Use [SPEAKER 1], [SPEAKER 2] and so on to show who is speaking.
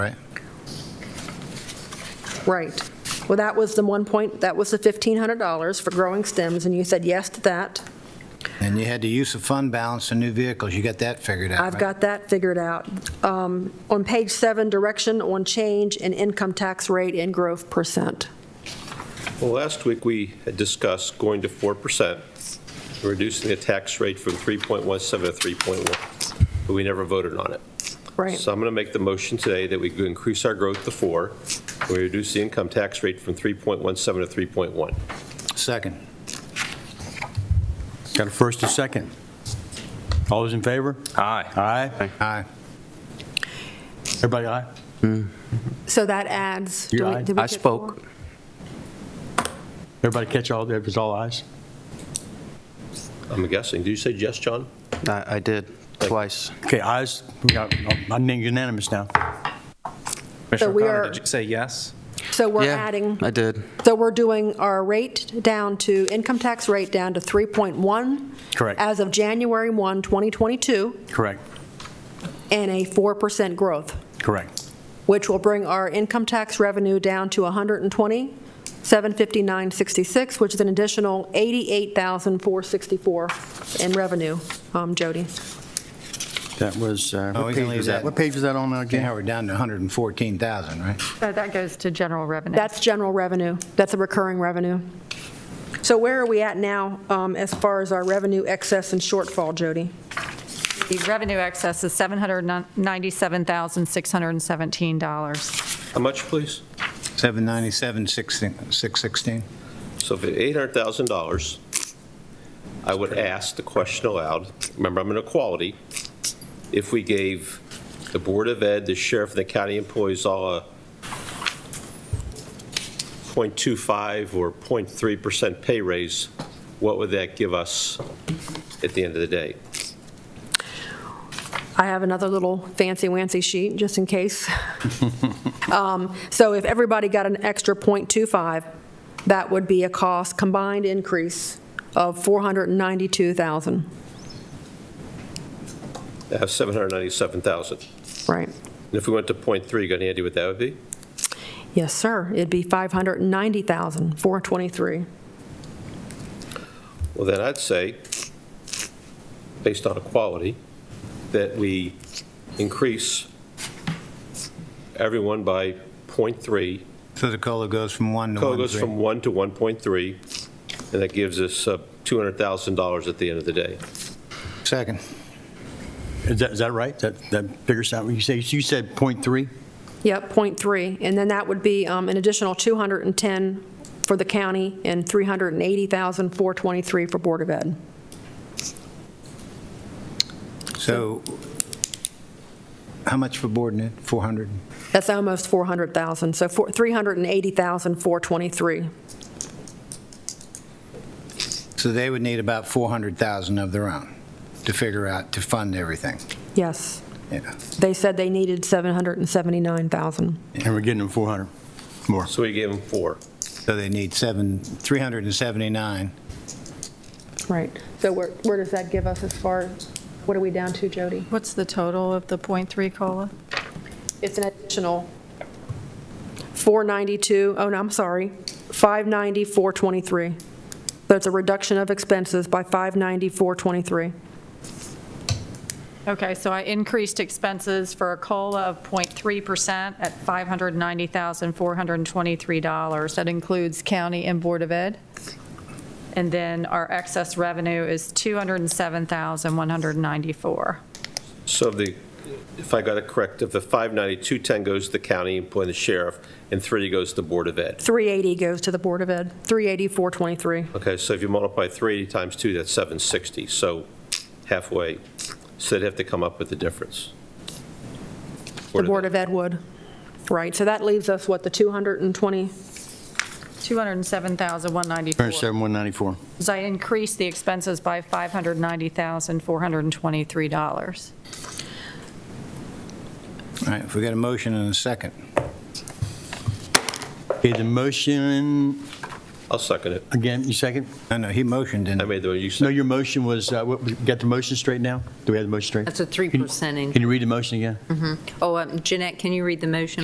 [SPEAKER 1] Right. Well, that was the one point, that was the $1,500 for growing stems, and you said yes to that.
[SPEAKER 2] And you had the use of fund balance in new vehicles, you got that figured out,
[SPEAKER 1] I've
[SPEAKER 2] right?
[SPEAKER 1] got that figured out. Um, On page seven, direction on change in income tax rate and growth percent.
[SPEAKER 3] Well, last week, we had discussed going to 4%, and reducing the tax rate from 3.17 to 3.1, but we never voted on it.
[SPEAKER 1] Right.
[SPEAKER 3] So I'm going to make the motion today that we increase our growth to 4, we reduce the income tax rate from 3.17 to 3.1.
[SPEAKER 2] Second.
[SPEAKER 4] Got a first and second. All those in favor? Aye. Aye?
[SPEAKER 2] Aye.
[SPEAKER 4] Everybody aye?
[SPEAKER 1] So that adds. do
[SPEAKER 4] You
[SPEAKER 1] we-
[SPEAKER 4] aye?
[SPEAKER 1] did we
[SPEAKER 5] I
[SPEAKER 1] get
[SPEAKER 5] spoke.
[SPEAKER 1] four?
[SPEAKER 4] Everybody catch all, it was all ayes?
[SPEAKER 3] I'm guessing, did you say yes, John?
[SPEAKER 5] I I did, twice.
[SPEAKER 4] Okay, ayes, we got, oh, I'm unanimous now.
[SPEAKER 1] So
[SPEAKER 6] Commissioner
[SPEAKER 1] we
[SPEAKER 6] O'Connor,
[SPEAKER 1] are-
[SPEAKER 6] did you say yes?
[SPEAKER 1] So we're
[SPEAKER 5] Yeah,
[SPEAKER 1] adding,
[SPEAKER 5] I did.
[SPEAKER 1] so we're doing our rate down to, income tax rate down to 3.1.
[SPEAKER 4] Correct.
[SPEAKER 1] As of January 1, 2022,
[SPEAKER 4] Correct,
[SPEAKER 1] and a 4% growth.
[SPEAKER 4] correct.
[SPEAKER 1] which will bring our income tax revenue down to 120, 759.66, which is an additional 88,464 in revenue, um, Jody.
[SPEAKER 4] That was, uh,
[SPEAKER 2] Oh,
[SPEAKER 4] what
[SPEAKER 2] we can
[SPEAKER 4] page
[SPEAKER 2] leave
[SPEAKER 4] was that?
[SPEAKER 2] that.
[SPEAKER 4] What page was that on now
[SPEAKER 2] Now
[SPEAKER 4] again?
[SPEAKER 2] we're down to 114,000, right?
[SPEAKER 7] So that goes to general revenue.
[SPEAKER 1] That's general revenue. That's a recurring revenue. So where are we at now um, as far as our revenue excess and shortfall, Jody?
[SPEAKER 7] The revenue excess is $797,617.
[SPEAKER 3] How much, please?
[SPEAKER 2] 797, 616.
[SPEAKER 3] So if it's $800,000, I would ask the question aloud, remember, I'm in equality, if we gave the Board of Ed, the sheriff, and the county employees all a .25 or .3% pay raise, what would that give us at the end of the day?
[SPEAKER 1] I have another little fancy-wancy sheet, just in case. Um, So if everybody got an extra .25, that would be a cost, combined increase of 492,000,
[SPEAKER 3] That's 797,000. And
[SPEAKER 1] right?
[SPEAKER 3] if we went to .3, you got any idea what that would be?
[SPEAKER 1] Yes, sir, it'd be 590,423.
[SPEAKER 3] Well, then I'd say, based on equality, that we increase everyone by .3.
[SPEAKER 2] So the COLA goes from 1 to 1.
[SPEAKER 3] COLA goes from 1 to 1.3, and that gives us uh, $200,000 at the end of the day.
[SPEAKER 2] Second.
[SPEAKER 4] Is that, is that right? That, that figures out, what you say, you said point three?
[SPEAKER 1] Yep, .3, and then that would be um, an additional 210 for the county and 380,423 for Board of Ed.
[SPEAKER 2] So how much for board net? 400?
[SPEAKER 1] That's almost 400,000, so four- 380,423.
[SPEAKER 2] So they would need about 400,000 of their own to figure out, to fund everything.
[SPEAKER 1] Yes.
[SPEAKER 2] Yeah.
[SPEAKER 1] They said they needed 779,000.
[SPEAKER 4] And we're getting them 400 more.
[SPEAKER 3] So we gave them four.
[SPEAKER 2] So they need 7, 379.
[SPEAKER 1] Right. So where, where does that give us as far, what are we down to, Jody?
[SPEAKER 7] What's the total of the .3 COLA?
[SPEAKER 1] It's an additional 492, oh, no, I'm sorry, 590, 423. So it's a reduction of expenses by 590, 423.
[SPEAKER 7] Okay, so I increased expenses for a COLA of 0.3% at $590,423. That includes county and Board of Ed. And then our excess revenue is 207,194.
[SPEAKER 3] So if the, if I got it correct, if the 590, 210 goes to the county, employing the sheriff, and 3 goes to the Board of Ed.
[SPEAKER 1] 380 goes to the Board of Ed, 380, 423.
[SPEAKER 3] Okay, so if you multiply 3 times 2, that's 760, so halfway. So they'd have to come up with the difference.
[SPEAKER 1] The Board of Ed would. Right, so that leaves us, what, the 220?
[SPEAKER 7] 207,194.
[SPEAKER 4] 194.
[SPEAKER 7] So I increased the expenses by $590,423.
[SPEAKER 2] All right, if we got a motion and a second.
[SPEAKER 4] Okay, the motion,
[SPEAKER 3] I'll second it.
[SPEAKER 4] again, you second?
[SPEAKER 2] No, no, he motioned in.
[SPEAKER 3] I made the, you
[SPEAKER 4] No,
[SPEAKER 3] said,
[SPEAKER 4] your motion was, uh, what- we got the motion straight now? Do we have the motion straight?
[SPEAKER 8] That's a
[SPEAKER 4] Can you-
[SPEAKER 8] 3%
[SPEAKER 4] Can you read the motion again?
[SPEAKER 8] Oh, um, Jeanette, can you read the motion?